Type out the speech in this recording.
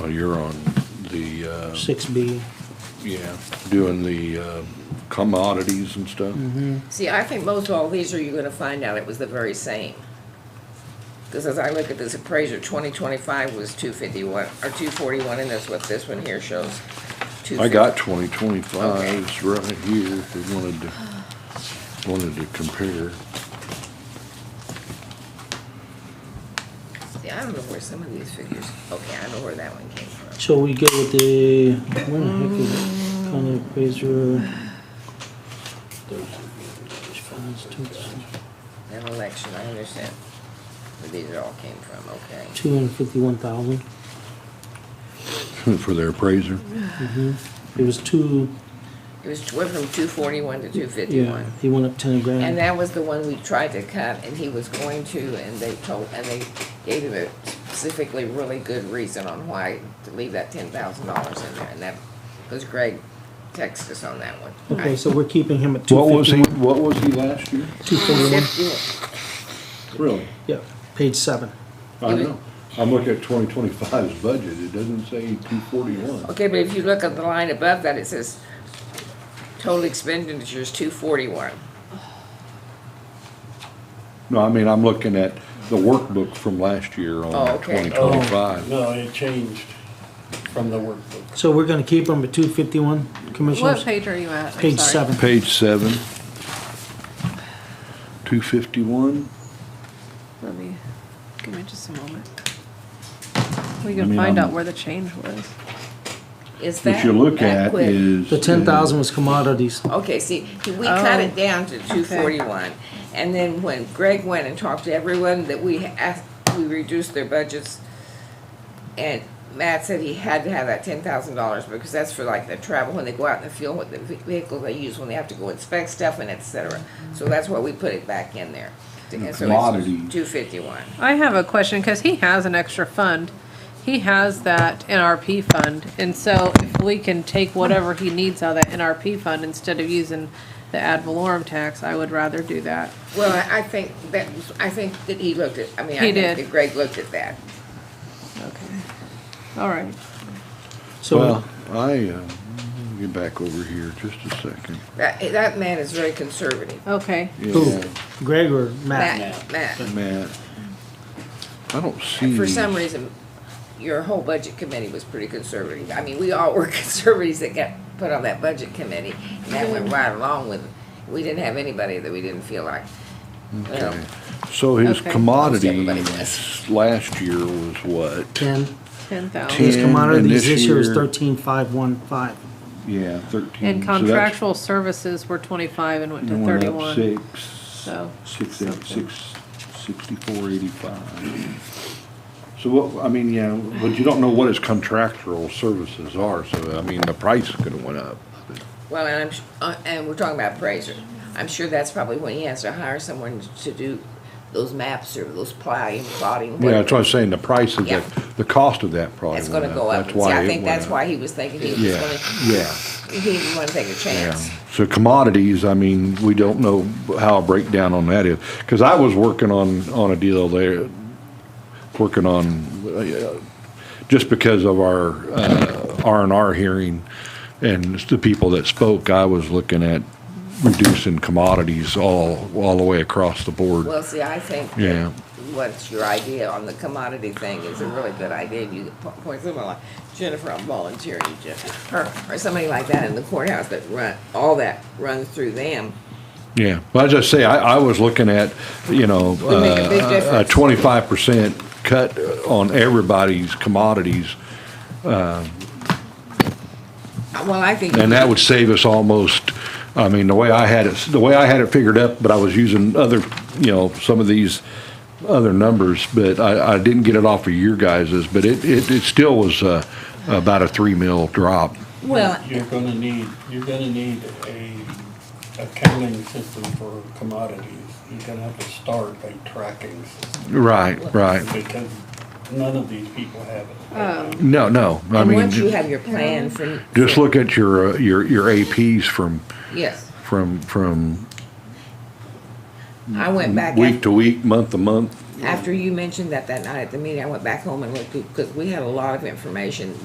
Well, You're on the, uh, six B. yeah, doing the uh, commodities and stuff. See, I think most all these are, you're gonna find out it was the very same. Because as I look at this appraiser, twenty twenty-five was two fifty-one, or two forty-one, and that's what this one here shows. I got Okay. 2025s right here if you wanted to, wanted to compare. 250. See, I don't know where some of these figures, okay, I know where that one came from. So we go with the, where the heck is it? County appraiser. An election, I understand where these all came from, okay. Two hundred fifty-one thousand. For their appraiser? It was two, It was, went from two forty-one to two yeah, fifty-one. he went up ten And grand. that was the one we tried to cut, and he was going to, and they told, and they gave him a specifically really good reason on why to leave that ten thousand dollars in there, and that was Greg texted us on that one. Okay, so we're keeping him at What two was he, fifty-one. what was he last year? Two forty-one, Really? yeah, page seven. I know. I'm looking at 2025's budget. It doesn't say 241. Okay, but if you look at the line above that, it says total expenditures two forty-one. No, I mean, I'm looking at the workbook from last year on Oh, okay. Oh. 2025. No, it changed from the workbook. So we're gonna keep him at two fifty-one, What commissioners? page are you at? I'm Page sorry. seven. Page seven. 251. Let me, give me just a moment. We I can mean, I'm- find out where the change was. Is that? What you look that at quick? is. The ten thousand was commodities. Okay, see, we cut Oh. it down to two forty-one, and then when Greg went and talked to everyone that we asked, we reduced their budgets. And Matt said he had to have that ten thousand dollars, because that's for like the travel, when they go out in the field, what the ve- vehicle they use, when they have to go inspect stuff and et cetera. So that's why we put it back in there. commodity. Two fifty-one. I have a question, because he has an extra fund. He has that NRP fund, and so if we can take whatever he needs out of that NRP fund instead of using the ad valorem tax, I would rather do that. Well, I- I think that, was- I think that he looked at, I mean, I think He did. that Greg looked at that. Okay. All right. So Well, I, uh, let me get back over here just a second. That, that man is very conservative. Okay. Who? Yeah, Greg or Matt? Matt, Matt. Matt. I don't see. For some reason, your whole budget committee was pretty conservative. I mean, we all were conservatives that got put on that budget committee, and that went right along with, we didn't have anybody that we didn't feel like. you know. Okay. So his Okay. commodity Everybody does. last year was what? Ten. Ten His thousand. Ten, and commodities this this year is year- thirteen five one five. Yeah, thirteen. And So that's- contractual services were twenty-five and went it to went up thirty-one. Six, so six, eight, something. six, sixty-four, eighty-five. So what, I mean, yeah, but you don't know what his contractual services are, so I mean, the price could have went up. Well, and I'm, sh- uh, and we're talking about appraiser. I'm sure that's probably when he has to hire someone to do those maps or those plowing, plotting. Yeah, that's whatever. what I'm saying, the price of Yeah. that, the cost of that probably It's went up. gonna go up. That's See, I it think went that's up. why he was thinking he was Yeah, gonna, yeah, he didn't wanna take a yeah. chance. So commodities, I mean, we don't know how a breakdown on that is, because I was working on, on a deal there, working on, uh, just because of our uh, R and R hearing and the people that spoke, I was looking at reducing commodities all, all the way across the board. Well, see, I think. that Yeah. What's your idea on the commodity thing is a really good idea. You could po- point someone like Jennifer, I'm volunteering you, Jennifer, or, or somebody like that in the courthouse that run, all that runs through them. Yeah, but I just say, I, I was looking at, you know, Would make a big uh, a difference. twenty-five percent cut on everybody's commodities. Uh, Well, I think. And that would save us almost, I mean, the way I had it, the way I had it figured up, but I was using other, you know, some of these other numbers, but I, I didn't get it off of your guys's, but it, it, it still was, uh, about a three mil drop. Well, You're gonna need, you're gonna need a accounting system for commodities. You're gonna have to start a tracking system Right, right. because none of these people have it. No, no, I and once you mean, have your plan for. just look at your, uh, your, your APs from, Yes, from, from I went back. week af- Mm, to week, month to month, After you mentioned that that night at the meeting, I went back home and looked, because we had a lot of information